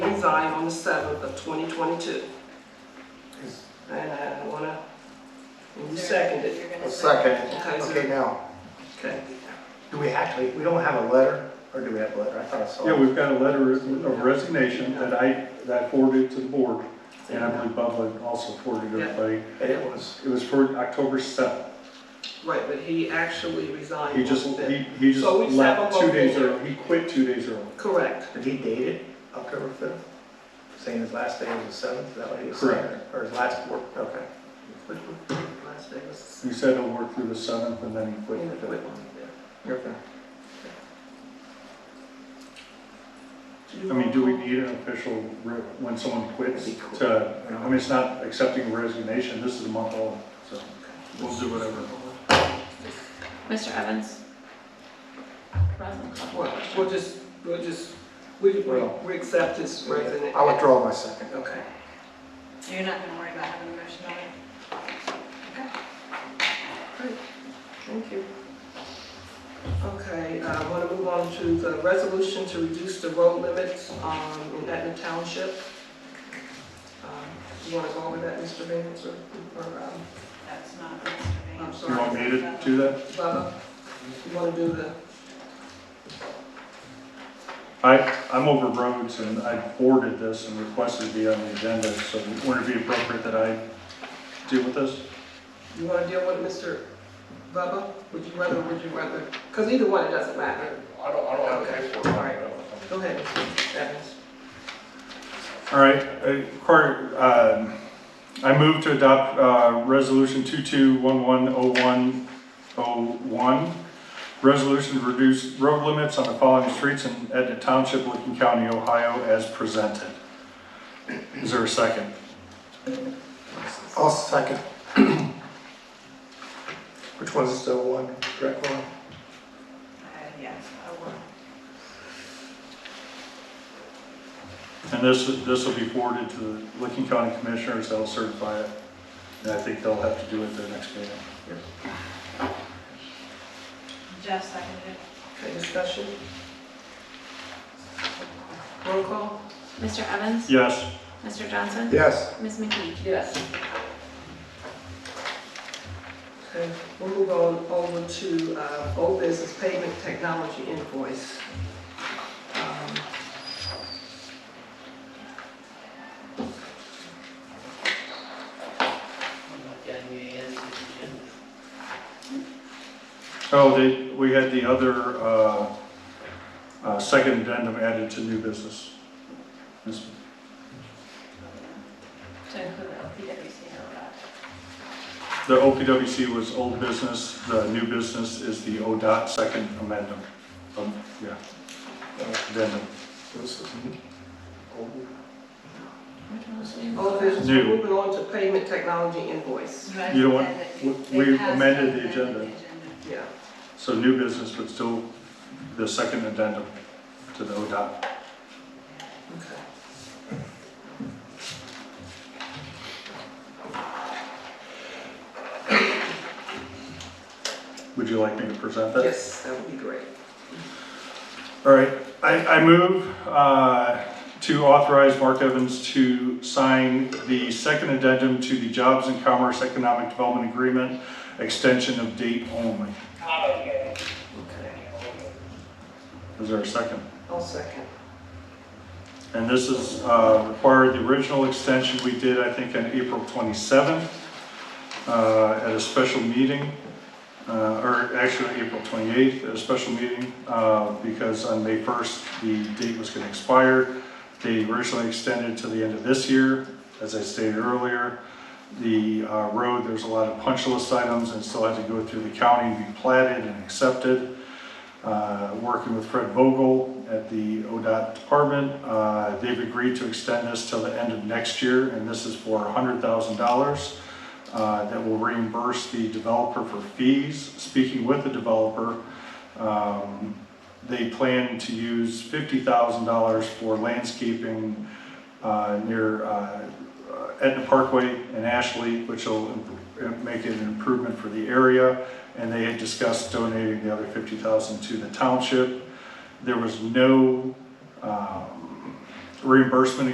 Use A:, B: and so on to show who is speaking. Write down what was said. A: resigned on the seventh of twenty twenty-two.
B: Is-
A: And I wanna, and you seconded.
C: You're
B: A
C: gonna
B: second.
A: Okay,
B: Okay,
A: so,
B: now,
A: okay.
B: do we actually, we don't have a letter, or do we have a letter? I thought I saw.
D: Yeah, we've got a letter of resignation that I, that I forwarded to the board, and I believe Bob Lynn also forwarded it, but
B: But it was,
D: it was for October seventh.
A: Right, but he actually resigned.
D: He just,
A: on the
D: he,
A: fifth.
D: he just
A: So we just have
D: left
A: a
D: two
A: vote
D: days
A: here.
D: early, he quit two days early.
A: Correct.
B: did he date it October 5th? Saying his last day was the 7th, is that what he was saying? Or his last work, okay.
A: Which one? Last day was.
D: He said he'll work through the seventh, and then he
A: Yeah,
D: quit. the
A: which
D: fifth.
A: one?
B: Okay.
A: Yeah.
D: I mean, do we need an official, re- when someone quits,
B: That'd be cool.
D: to, I mean, it's not accepting a resignation, this is a month old, so we'll do whatever.
C: Mr. Evans?
A: Well, we'll just, we'll just, we, we
B: Well-
A: we accept his resignation.
B: I withdraw my second.
A: Okay.
C: You're not gonna worry about having a motion on it?
A: Thank you. Okay, I want to move on to the resolution to reduce the road limits um, in Etna Township. Um, You want to go over that, Mr. Vance, or, or, um,
C: That's not Mr.
A: I'm
C: Van.
D: You want me
A: sorry,
D: to do that?
A: Bubba? You want to do the,
D: I, I'm over roads, and I forwarded this and requested to be on the agenda, so would it be appropriate that I deal with this?
A: you want to deal with Mr. Bubba? Would you rather, would you rather? Because either one, it doesn't matter.
E: I don't, I don't have paperwork.
A: All right. Go ahead, Mr. Evans.
D: All right, uh, Cor- um, I move to adopt uh, Resolution 22110101, resolution to reduce road limits on the following streets in Etna Township, Licking County, Ohio, as presented. Is there a second?
B: I'll second. Which one's still one, correct one?
C: Uh, Yes, I will.
D: And this, this will be forwarded to the Licking County Commissioners, they'll certify it, and I think they'll have to do it at their next meeting.
C: Jeff seconded.
A: Okay, discussion? Roll call?
F: Mr. Evans?
D: Yes?
F: Mr. Johnson?
B: Yes.
F: Ms. McKee?
A: Yes. Okay, we'll move on over to uh, old business payment technology invoice. Um,
D: Oh, they, we had the other, uh, uh, second addendum added to new business. Ms.
C: To include the LPWC or not.
D: The OPWC was old business, the new business is the ODOT second amendment. Um, yeah, addendum.
B: Uh, This is old.
F: Which one was it?
A: Old business,
D: New.
A: we're moving on to payment technology invoice.
D: You know what?
C: Right, and
D: We- we
C: it has
D: amended the
C: to
D: agenda.
C: amend the agenda.
A: Yeah,
D: So new business, but still the second addendum to the ODOT.
A: okay.
D: Would you like me to present that?
A: Yes, that would be great.
D: All right, I, I move uh, to authorize Mark Evans to sign the second addendum to the Jobs and Commerce Economic Development Agreement, extension of date only.
A: Okay,
D: Is there a second?
A: I'll second.
D: And this is uh, required, the original extension we did, I think, on April 27th uh, at a special meeting, uh, or actually April 28th, at a special meeting, uh, because on May 1st, the date was going to expire. They originally extended to the end of this year, as I stated earlier. The uh, road, there's a lot of punch list items and still had to go through the county and be platted and accepted uh, working with Fred Vogel at the ODOT department. Uh, They've agreed to extend this till the end of next year, and this is for $100,000 uh, that will reimburse the developer for fees. Speaking with the developer, um, they plan to use $50,000 for landscaping uh, near uh, Etna Parkway and Ashley, which will im- make it an improvement for the area and they had discussed donating the other fifty thousand to the township. There was no um, reimbursement